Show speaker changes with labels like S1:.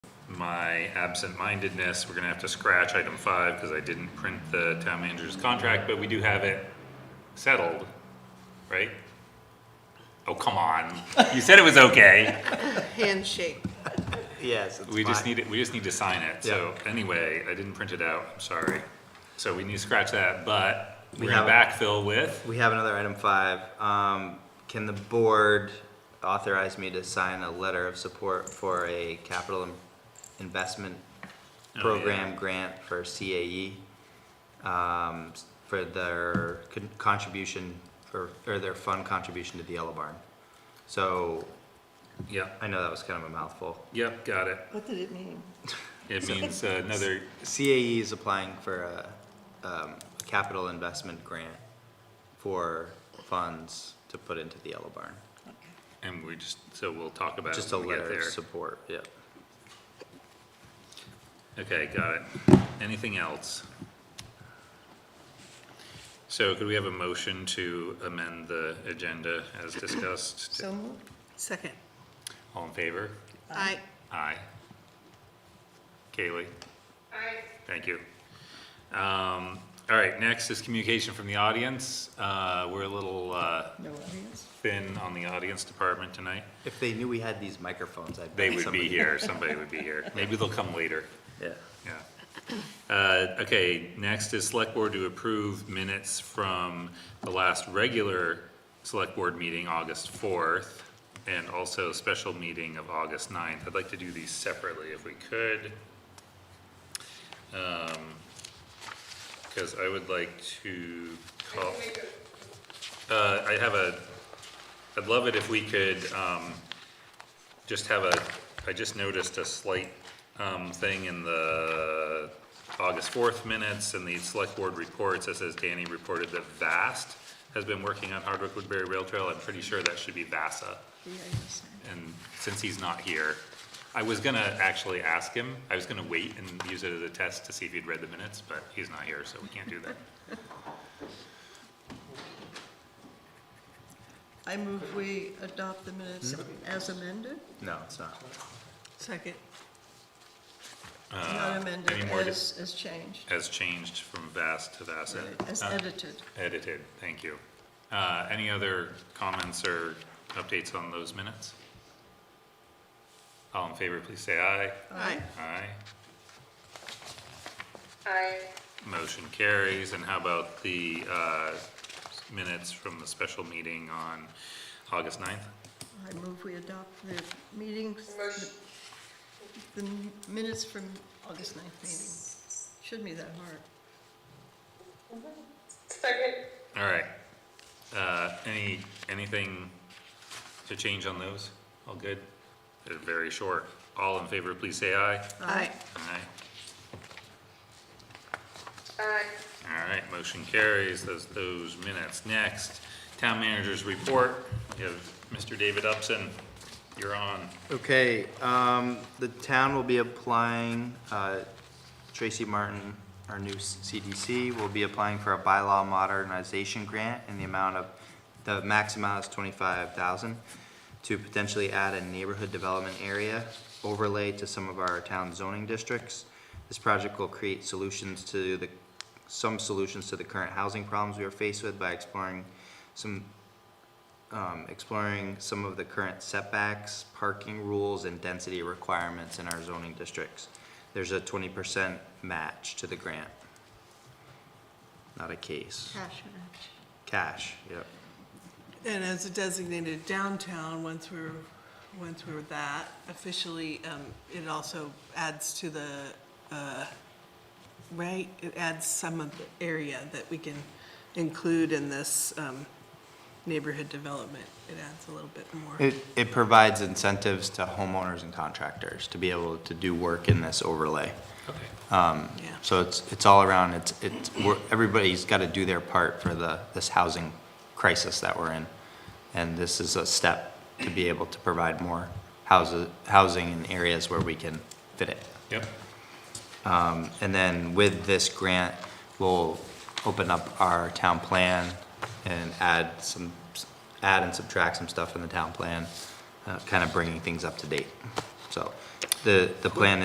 S1: my absent-mindedness, we're gonna have to scratch item five because I didn't print the town manager's contract, but we do have it settled, right? Oh, come on. You said it was okay.
S2: handshake.
S3: Yes, it's
S1: We just
S3: fine.
S1: need it, we just need to sign it, so, anyway, I didn't print it out, I'm sorry. So we need to scratch that, but
S3: We
S1: we're gonna
S3: have-
S1: backfill with,
S3: We have another item five. Um, can the board authorize me to sign a letter of support for a capital im- investment
S1: Oh, yeah.
S3: program grant for CAE? Um, s- for their con- contribution, for, or their fund contribution to the Yellow Barn. So,
S1: yep,
S3: I know that was kind of a mouthful.
S1: yep, got it.
S2: What did it mean?
S1: It means uh, another,
S3: CAE E is applying for a, um, a capital investment grant for funds to put into the Yellow Barn.
S1: and we just, so we'll talk about it
S3: Just a
S1: when we get
S3: letter
S1: there.
S3: of support, yep.
S1: Okay, got it. Anything else? So could we have a motion to amend the agenda as discussed?
S2: So moved. Second.
S1: All in favor?
S2: I,
S1: Aye. Kaylee? Aye. Thank you. Um, all right, next is communication from the audience. Uh, we're a little, uh,
S2: no audience.
S1: thin on the audience department tonight.
S3: If they knew we had these microphones, I'd.
S1: They
S3: bet
S1: would be
S3: somebody-
S1: here, somebody would be here. Maybe they'll come later.
S3: Yeah.
S1: Yeah. Uh, Okay, next is select board to approve minutes from the last regular select board meeting, August 4th, and also special meeting of August 9th. I'd like to do these separately if we could. Because I would like to call, Uh, I have a, I'd love it if we could um, just have a, I just noticed a slight um, thing in the August 4th minutes and the select board reports that says Danny reported that VAST has been working on Hardwick Woodbury Rail Trail. I'm pretty sure that should be VASA. And since he's not here, I was gonna actually ask him, I was gonna wait and use it as a test to see if he'd read the minutes, but he's not here, so we can't do that.
S2: I move we adopt the minutes
S1: Mm-hmm.
S2: as amended.
S3: No, it's not.
S2: Second. Not amended,
S1: Uh, any more
S2: as, as changed,
S1: Has changed from vast to vast.
S2: as
S1: Uh,
S2: edited.
S1: Edited, thank you. Uh, any other comments or updates on those minutes? All in favor, please say aye.
S2: Aye.
S1: Aye.
S4: Aye.
S1: Motion carries, and how about the, uh, minutes from the special meeting on August 9th?
S2: I move we adopt the meetings,
S4: Motion,
S2: the minutes from August 9th meeting. Shouldn't be that hard.
S4: second.
S1: All right. Uh, any, anything to change on those? All good? They're very short. All in favor, please say aye.
S2: Aye.
S1: Aye.
S4: Aye.
S1: All right, motion carries. Those, those minutes. Next, town manager's report. We have Mr. David Upson. You're on.
S3: Okay, um, the town will be applying, uh, Tracy Martin, our new CDC, will be applying for a bylaw modernization grant in the amount of, the max amount is twenty-five thousand to potentially add a neighborhood development area overlay to some of our town zoning districts. This project will create solutions to the, some solutions to the current housing problems we are faced with by exploring some um, exploring some of the current setbacks, parking rules, and density requirements in our zoning districts. There's a twenty percent match to the grant. Not a case,
S2: Cash and action.
S3: cash, yep.
S5: And as a designated downtown, once we're, once we're that officially, um, it also adds to the, uh, right? It adds some of the area that we can include in this, um, neighborhood development. It adds a little bit more.
S3: It, it provides incentives to homeowners and contractors to be able to do work in this overlay. Um,
S1: Okay.
S5: Yeah.
S3: So it's, it's all around, it's, it's, we're- everybody's got to do their part for the, this housing crisis that we're in. And this is a step to be able to provide more houses, housing in areas where we can fit it.
S1: Yep.
S3: And then with this grant, we'll open up our town plan and add some, add and subtract some uh, stuff in the town plan, kind of bringing things up to date. So the, the plan